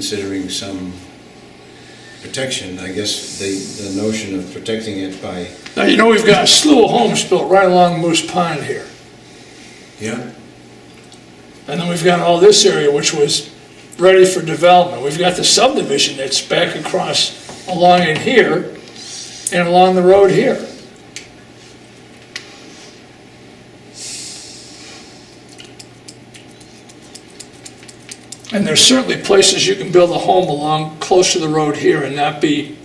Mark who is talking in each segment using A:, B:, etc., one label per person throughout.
A: considering some protection. I guess the, the notion of protecting it by,
B: Now, you know, we've got a slew of homes built right along Moose Pond here.
A: yeah,
B: And then we've got all this area which was ready for development. We've got the subdivision that's back across along in here and along the road here. And there's certainly places you can build a home along close to the road here and not be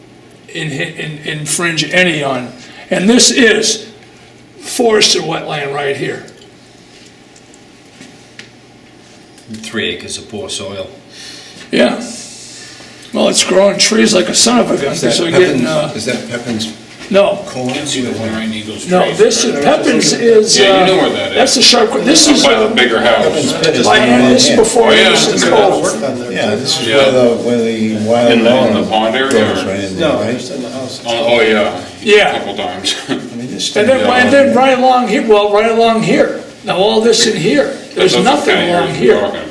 B: in- in- infringe any on. And this is forested wetland right here.
C: Three acres of poor soil.
B: Yeah. Well, it's growing trees like a son of a gun,
A: is that
B: so we're getting,
A: Pepin's,
B: uh,
A: is that Pepin's
B: no,
A: corn?
D: Behind Eagles
B: no,
D: Trace.
B: this is, Pepin's is, uh.
D: Yeah, you know where that is.
B: That's the sharp, this is,
D: By the
B: uh,
D: bigger house.
B: by Anderson before
D: Oh, yeah,
B: Anderson
D: yeah.
B: Cove.
A: Yeah, this is
D: Yeah.
A: where the, where the wild.
D: In the- in the
A: melon
D: pond area,
A: grows
D: or-
A: Right in there,
E: No,
A: right?
E: it's in the house.
D: Oh, oh, yeah.
B: Yeah.
D: A Couple times.
A: I mean, this
B: And
A: thing-
B: then, and then right along here, well, right along here. Now, all this in here, there's
D: That's the
B: nothing
D: kind of
B: along
D: areas we're
B: here.
D: talking about.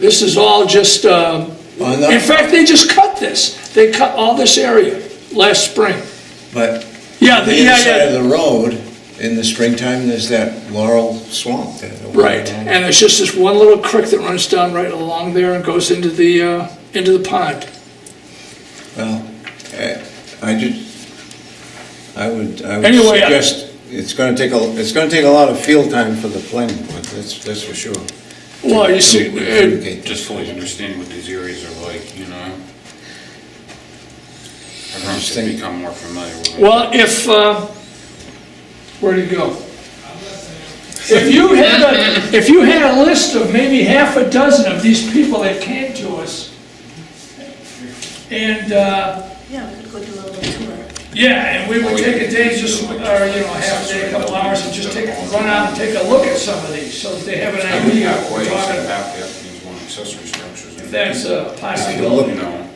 B: This is all just, um,
A: On
B: in
A: that-
B: fact, they just cut this. They cut all this area last spring.
A: But
B: Yeah,
A: on the
B: the- yeah,
A: other side of
B: yeah.
A: the road, in the springtime, there's that laurel swamp there.
B: Right, and it's just this one little creek that runs down right along there and goes into the, uh, into the pond.
A: Well, I- Uh, I just, I would, I would
B: Anyway, I-
A: suggest, it's gonna take a, it's gonna take a lot of field time for the planning board, that's, that's for sure.
B: Well, Oh, you see, it-
A: Okay.
D: Just fully understanding what these areas are like, you know? Everyone should
A: Interesting.
D: become more familiar with it.
B: well, if, uh, where'd it go? If you had a, if you had a list of maybe half a dozen of these people that came to us, and, uh,
F: Yeah, we could go do a little tour.
B: yeah, and we would take a day, just, or, you know, half a day, a couple hours, and just take, run out and take a look at some of these, so that they have an
D: And we
B: idea
D: got
B: of what
D: ways
B: we're
D: to
B: talking about.
D: have the these one accessory structures.
B: If that's a
D: You
B: possibility.
D: know, I mean.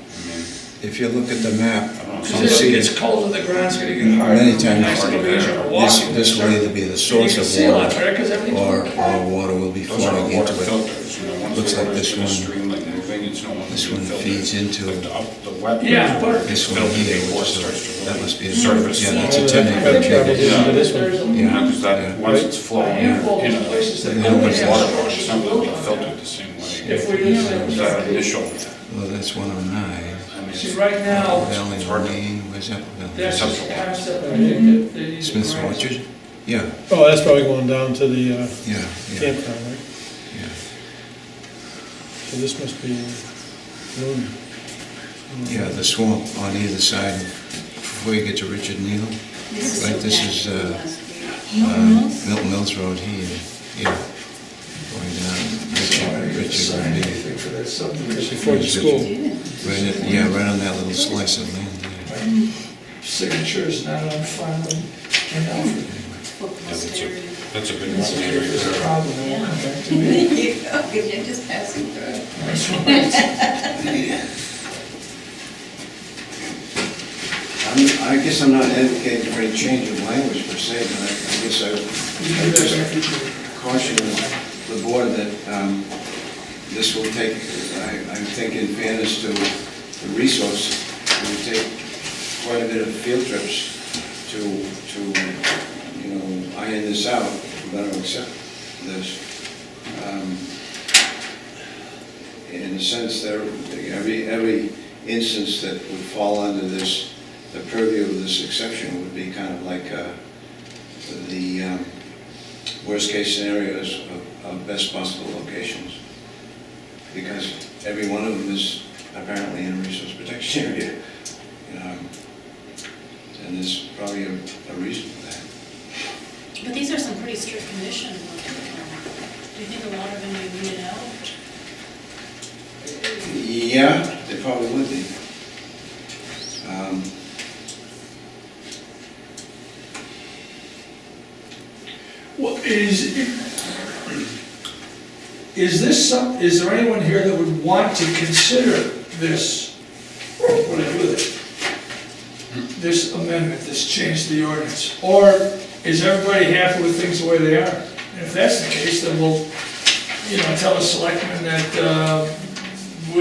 A: If you look at the map, you'll
B: Because it
A: see
B: gets
A: it
B: colder, the ground's gonna get harder.
A: Mm, many times,
B: Nice little beach or
A: this,
B: walking.
A: this will either be the
B: And you
A: source
B: can see a
A: of
B: lot
A: water,
B: better, because everything's
A: or,
B: more
A: or water will be
D: Those are
A: flowing
D: water
A: into it.
D: filters, you know, once
A: Looks
D: the
A: like this
D: water's in a
A: one.
D: stream like moving, it's no longer
A: This
D: being
A: one
D: filtered.
A: feeds into-
D: Like the up- the wet-
B: Yeah, but-
A: This one
D: Filter
A: here,
D: before it
A: which
D: starts to
A: is, that
D: really
A: must be, a-
D: surface.
A: yeah, that's a ten acre
E: Probably
A: channel.
E: into this one.
D: You know, 'cause
A: Yeah.
D: that, once it's flowing in, you
B: Handful of
D: know,
B: places that
D: it
B: don't
D: opens
B: have
D: water,
B: structures
D: it's not really being filtered the same way.
B: If we just-
D: It's That initial,
A: Well, that's one oh nine,
D: I mean,
B: See,
D: it's
B: right now,
A: Valley Lane, where's that?
B: that's
A: Valley?
B: just the concept, I think, that they need to
A: Smith's
B: grasp.
A: Orchard? Yeah,
E: Oh, that's probably going down to the uh,
A: yeah, yeah.
E: campground, right?
A: Yeah.
E: So this must be uh, Loon.
A: Yeah, the swamp on either side, of- before you get to Richard Neal, right, this is uh, uh, Milton Mills Road here, yeah. Going down, Richard, Richard Road here.
E: Before the school.
A: Right at- Yeah, right on that little slice of land there.
B: Signatures not on file and Alfred.
D: That's a big one.
B: There's a problem.
A: uh,
F: You're just passing through.
A: I guess I'm not advocating for a change of language per se, but I guess I caution the board that um, this will take, I I think in fairness to the resource, it will take quite a bit of field trips to, to, you know, iron this out, but I'll accept this. Um, In a sense, there, every, every instance that would fall under this, the purview of this exception would be kind of like uh, the, um, worst-case scenarios of- of best possible locations. Because every one of them is apparently in a resource protection area. you know, And there's probably a a reason for that.
F: But these are some pretty strict conditions. Do you think a lot of them may weed it out?
A: Yeah, they probably would be. Um,
B: Well, is, is this some, is there anyone here that would want to consider this, what do I do with it? This amendment, this change to the ordinance, or is everybody happy with things the way they are? And if that's the case, then we'll, you know, tell the selectmen that, uh,